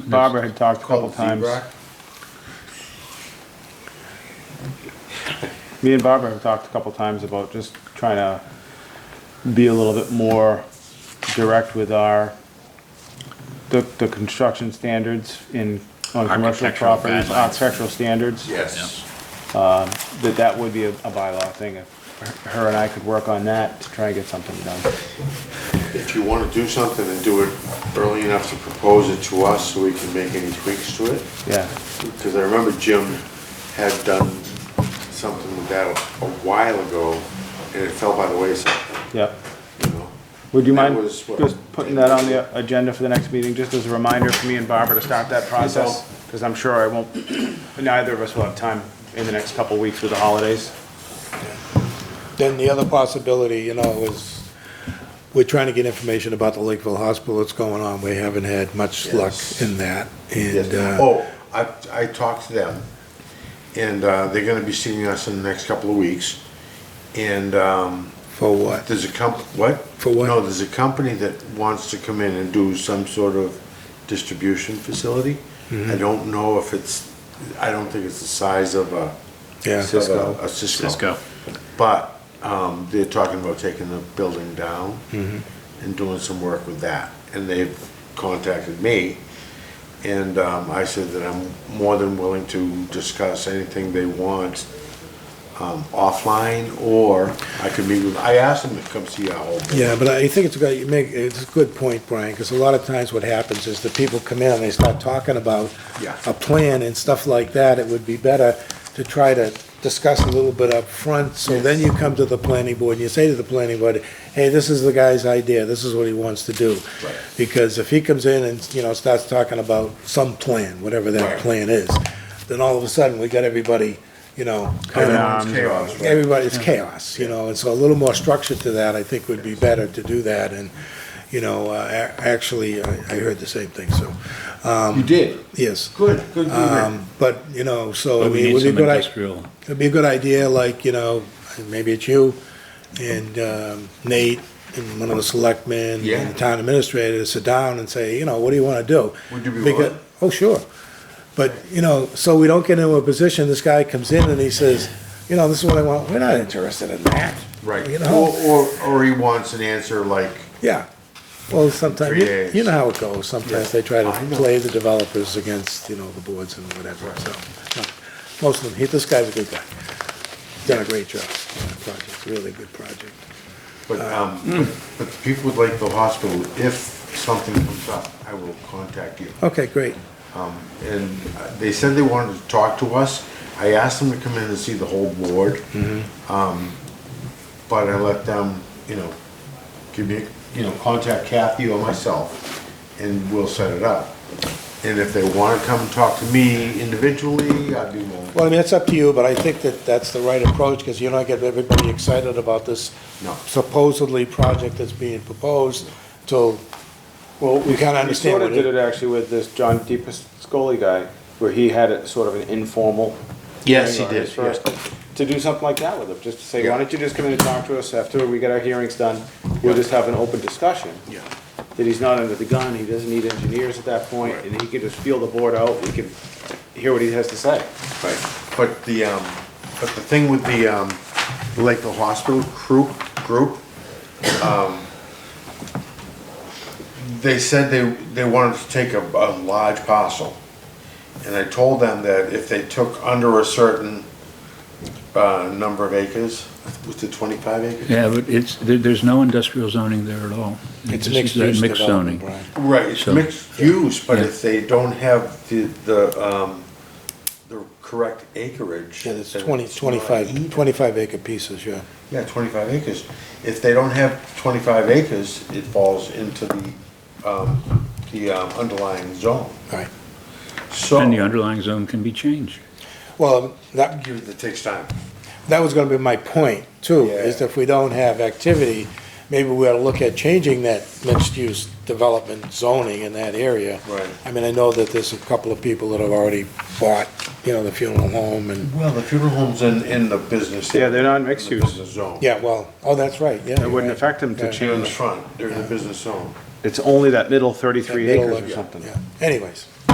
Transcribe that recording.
Barbara had talked a couple Called times. Seabrook. Me and Barbara have talked a couple times about just trying to be a little bit more direct with our, the, the construction standards in, on commercial Architectural properties, guidelines. architectural standards. Yes. That that would be a, a bylaw thing, if her and I could work on that to try and get something done. If you want to do something, then do it early enough to propose it to us so we can make any tweaks to it. Yeah, Because I remember Jim had done something with that a while ago, and it fell by the wayside, yeah. you know? Would you That mind was what- just putting that on the agenda for the next meeting, just as a reminder for me and Barbara to start that process? Because I'm sure I won't, neither of us will have time in the next couple of weeks with the holidays. Then the other possibility, you know, is we're trying to get information about the Lakeville Hospital, what's going on. We haven't had much luck Yes. in that. Yes. And, uh, Oh, I, I talked to them, and uh, they're gonna be seeing us in the next couple of weeks. And um, for what? there's a comp, what? For what? No, there's a company that wants to come in and do some sort of distribution facility. Mm-hmm. I don't know if it's, I don't think it's the size of a. Yeah. Cisco. A Cisco. Cisco. But um, they're talking about taking the building down and doing some work with that. And they've contacted me, and um, I said that I'm more than willing to discuss anything they want um, offline, or I could meet with, I asked them to come see our whole board. Yeah, but I think it's a good, you make, it's a good point, Brian, because a lot of times what happens is the people come in and they start talking about Yeah. a plan and stuff like that. It would be better to try to discuss a little bit up front. so then you come to the planning board and you say to the planning board, hey, this is the guy's idea, this is what he wants to do. Right. Because if he comes in and, you know, starts talking about some plan, whatever that Right. plan is, then all of a sudden, we got everybody, you know, kind of It's um, chaos, right? everybody, it's chaos, you know, and so a little more structure to that, I think, would be better to do that, and, you know, uh, a- actually, I I heard the same thing, so, You did? yes. Good, good, good, good. Um, But, you know, so, I But we mean, it need would be a some good, i- industrial. it'd be a good idea, like, you know, maybe it's you, and um, Nate, and one of the selectmen, Yeah. and the town administrator, to sit down and say, you know, what do you want to do? Would you be Because- willing? Oh, sure. But, you know, so we don't get into a position, this guy comes in and he says, you know, this is what I want, we're not interested in that. Right. You Or, know, or, or he wants an answer like, yeah. Well, sometimes, Three you- days. you know how it goes, sometimes they try to I know. play the developers against, you know, the boards and whatever, so. no. Most of them, he, this guy's a good guy. Done a great job, on that project, really good project. But, um, but the people would like the hospital, if something comes up, I will contact you. Okay, great, And uh, they said they wanted to talk to us. I asked them to come in and see the whole board. Um, but I let them, you know, give me, you know, contact Kathy or myself and we'll set it up. And if they wanna come and talk to me individually, I'd be more. well, I mean, it's up to you, but I think that that's the right approach, because you don't get everybody excited about this No. supposedly project that's being proposed till, well, we kind of We understand sort what of did it it. actually with this John DePascoli guy, where he had a sort of an informal. Yes, hearing he on his did, first- To do something like that with him, just to say, Yeah. why don't you just come in and talk to us after we get our hearings done? We'll just have an open discussion. Yeah. That he's not under the gun, he doesn't need engineers at that point, Right. and he can just feel the board out, we can hear what he has to say. Right, but the, um, but the thing with the, um, the Lakeville Hospital crew, group, um, they said they, they wanted to take a, a large parcel. And I told them that if they took under a certain, uh, number of acres, was it twenty-five acres? Yeah, but it's, there, there's no industrial zoning there at all. It's just mixed that use Mixed zoning. development, Brian. Right, it's So- mixed use, but Yeah. if they don't have the, the, um, the correct acreage. Yeah, there's then 20, it's not 25, even. 25 acre pieces, yeah. Yeah, twenty-five acres. If they don't have twenty-five acres, it falls into the, um, the um, underlying zone. Right. So, And the underlying zone can be changed. Well, that, it takes time. that was gonna be my point too, is Yeah. if we don't have activity, maybe we ought to look at changing that mixed-use development zoning in that area. Right. I mean, I know that there's a couple of people that have already bought, you know, the funeral home and, Well, the funeral home's in, in the business. Yeah, they're not mixed in the use. business zone. yeah, well, oh, that's right, yeah. It wouldn't affect him to Yeah. They're in the change, front, they're in the business zone. it's only that middle thirty-three acres or something. Anyways,